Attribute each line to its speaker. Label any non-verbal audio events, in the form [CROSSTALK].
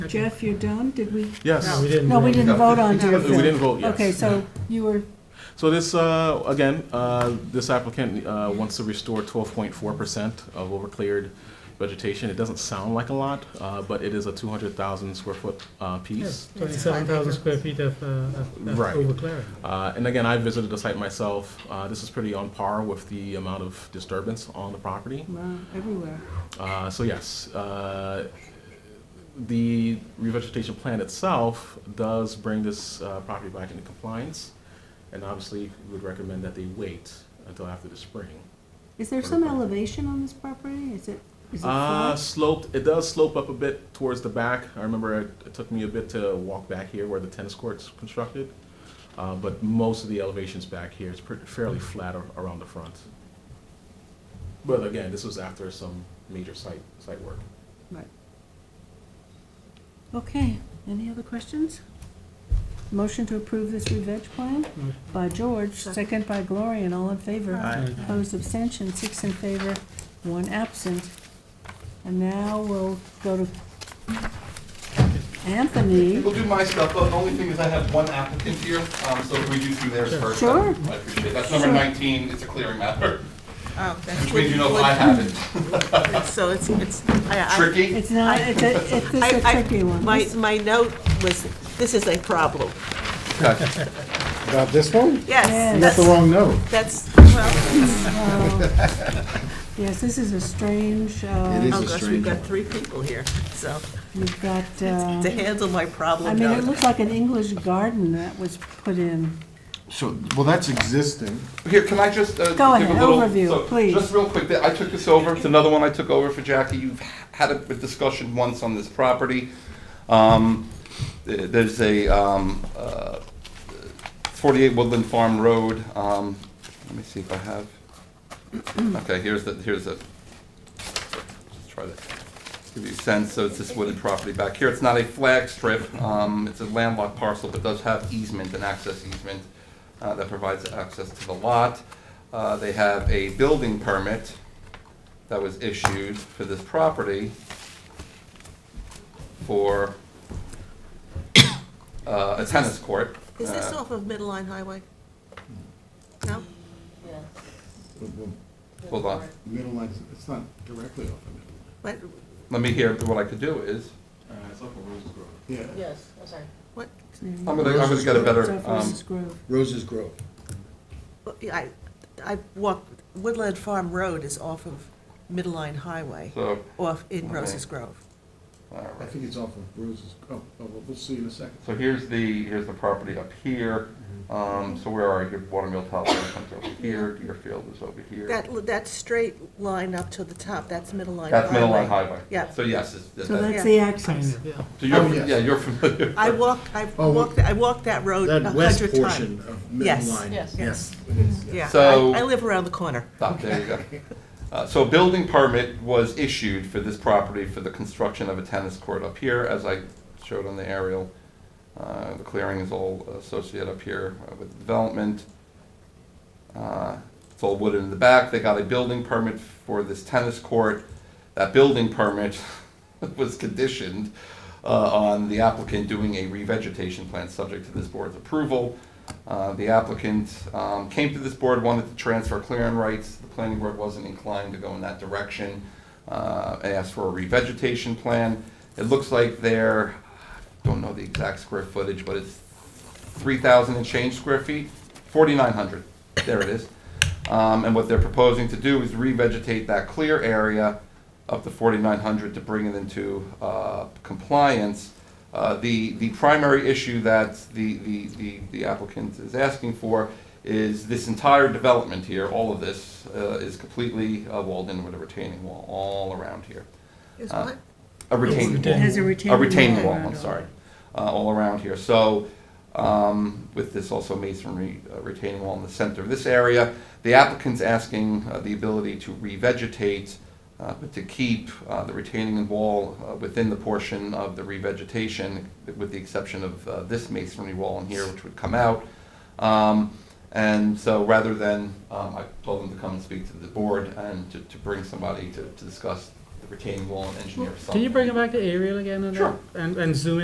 Speaker 1: Jeff, you're done? Did we?
Speaker 2: Yes.
Speaker 3: We didn't.
Speaker 1: No, we
Speaker 3: vote.
Speaker 1: didn't vote on Deerfield.
Speaker 2: We didn't vote, yes.
Speaker 1: Okay, so you were,
Speaker 2: So this, uh, again, uh, this applicant uh, wants to restore 12.4% of overcleared vegetation. It doesn't sound like a lot, uh, but it is a 200,000 square foot uh, piece.
Speaker 3: Twenty-seven thousand square feet of, uh, of of
Speaker 2: Right.
Speaker 3: overclearing.
Speaker 2: Uh, And again, I visited the site myself. Uh, This is pretty on par with the amount of disturbance on the property.
Speaker 1: wow, everywhere.
Speaker 2: Uh, So yes, uh, the revegetation plan itself does bring this uh, property back into compliance, and obviously, we would recommend that they wait until after the spring.
Speaker 1: Is there some elevation on this property? Is it, is it
Speaker 2: Uh,
Speaker 1: flat?
Speaker 2: sloped, it does slope up a bit towards the back. I remember it it took me a bit to walk back here where the tennis court's constructed, Uh, but most of the elevations back here is pretty- fairly flat ar- around the front. But again, this was after some major site, site work.
Speaker 1: Right. Okay, any other questions? Motion to approve this revenge plan by George, second by Gloria, and all in favor.
Speaker 2: Mm-hmm. Aye.
Speaker 1: Opposed, abstention, six in favor, one absent. And now we'll go to Anthony.
Speaker 4: We'll do my stuff, but the only thing is I have one applicant here, um, so if we do do theirs first.
Speaker 1: Sure.
Speaker 4: I appreciate it. That's number
Speaker 1: Sure.
Speaker 4: 19, it's a clearing matter,
Speaker 5: Oh, that's
Speaker 4: which means you know if I have it.
Speaker 5: So it's, it's, I,
Speaker 4: Tricky?
Speaker 1: It's not, it's a, it's it's
Speaker 5: I-
Speaker 1: a
Speaker 5: I-
Speaker 1: tricky
Speaker 5: I,
Speaker 1: one.
Speaker 5: my, my note was, this is a problem.
Speaker 4: Okay.
Speaker 6: About this one?
Speaker 1: Yes.
Speaker 5: Yes,
Speaker 6: That's the
Speaker 5: that's,
Speaker 6: wrong note.
Speaker 5: that's, well,
Speaker 1: Oh. Yes, this is a strange,
Speaker 6: It
Speaker 1: uh,
Speaker 6: is.
Speaker 5: oh gosh,
Speaker 6: a
Speaker 5: we've
Speaker 6: strange
Speaker 5: got
Speaker 6: one.
Speaker 5: three people here, so
Speaker 1: you've got,
Speaker 5: to
Speaker 1: uh,
Speaker 5: handle my
Speaker 1: I
Speaker 5: problem
Speaker 1: mean, it
Speaker 5: note.
Speaker 1: looks like an English garden that was put in.
Speaker 6: So, well, that's existing.
Speaker 4: Here, can I just uh, give
Speaker 1: Go ahead,
Speaker 4: a little...
Speaker 1: overview,
Speaker 4: so,
Speaker 1: please.
Speaker 4: Just real quick, I took this over, it's another one I took over for Jackie. You've had a discussion once on this property. Um, th- There's a um, uh, 48 Woodland Farm Road. um, Let me see if I have, okay, here's the, here's the, let's try to give you a sense. So it's this wooded property back here. It's not a flag strip. um, It's a landlocked parcel, but does have easement and access easement uh, that provides access to the lot. Uh, They have a building permit that was issued for this property for [COUGHS] uh, a tennis court.
Speaker 5: Is this
Speaker 4: Uh,
Speaker 5: off of Middle Line Highway? No?
Speaker 4: Hold on.
Speaker 6: Middle line, it's not directly off the
Speaker 5: What,
Speaker 4: Let me hear, what I could do is,
Speaker 2: It's up Roses Grove.
Speaker 6: middle line. Yeah,
Speaker 7: Yes, I'm sorry.
Speaker 5: what,
Speaker 4: I'm gonna, I'm gonna get a better,
Speaker 1: South
Speaker 4: Oh, um,
Speaker 1: Roses Grove.
Speaker 6: Roses Grove.
Speaker 5: I, I walked, Woodland Farm Road is off of Middle Line Highway,
Speaker 4: so,
Speaker 5: off in Roses Grove.
Speaker 4: all
Speaker 6: I
Speaker 4: right.
Speaker 6: think it's off of Roses, oh, oh, well, we'll see in a second.
Speaker 4: So here's the, here's the property up here, um, so where are you, Watermill Top comes over here, Deerfield is over here.
Speaker 5: That, that straight line up to the top, that's Middle Line Highway.
Speaker 4: That's Middle Line Highway.
Speaker 5: Yeah.
Speaker 4: So yes, it's-
Speaker 1: So
Speaker 4: that-
Speaker 1: that's the
Speaker 3: Kind
Speaker 1: access.
Speaker 3: of, yeah.
Speaker 4: so you're,
Speaker 6: Oh, yes.
Speaker 4: yeah, you're familiar.
Speaker 5: I walked, I
Speaker 6: Oh,
Speaker 5: walked, I walked that road Oh, a
Speaker 6: That
Speaker 5: hundred times.
Speaker 6: west portion of middle
Speaker 5: Yes.
Speaker 6: line.
Speaker 7: Yes.
Speaker 5: Yes,
Speaker 6: It is, yeah.
Speaker 5: yeah.
Speaker 4: So-
Speaker 5: I I live around the corner.
Speaker 4: Stop, there you go. Uh, So a building permit was issued for this property for the construction of a tennis court up here, as I showed on the aerial. Uh, The clearing is all associated up here uh, with development. Uh, It's all wood in the back, they got a building permit for this tennis court. That building permit [LAUGHS] was conditioned uh, on the applicant doing a revegetation plan subject to this board's approval. Uh, The applicant um, came to this board, wanted to transfer clearing rights. The planning board wasn't inclined to go in that direction. Uh, I Asked for a revegetation plan. It looks like they're, don't know the exact square footage, but it's 3,000 and change square feet, 4,900, there it is. Um, And what they're proposing to do is revegetate that clear area up to 4,900 to bring it into uh, compliance. Uh, The, the primary issue that the, the- the the applicant is asking for is this entire development here, all of this, uh, is completely uh, walled in with a retaining wall all around here.
Speaker 5: Is
Speaker 4: Uh,
Speaker 5: what?
Speaker 4: A retaining
Speaker 3: retaining
Speaker 4: wall
Speaker 3: wall.
Speaker 1: Has a retaining
Speaker 4: a
Speaker 1: wall.
Speaker 4: retaining wall,
Speaker 1: around
Speaker 4: I'm
Speaker 1: it.
Speaker 4: sorry, uh, all around here. So, um, with this also masonry uh, retaining wall in the center of this area, the applicant's asking uh, the ability to revegetate, uh, but to keep uh, the retaining wall uh, within the portion of the revegetation, with the exception of uh, this masonry wall in here, which would come out. Um, And so, rather than, um, I told them to come and speak to the board and to, to bring somebody to, to discuss the retaining wall and engineer something.
Speaker 3: Can you bring it back to aerial again? and-
Speaker 4: Sure.
Speaker 3: And, and zoom in?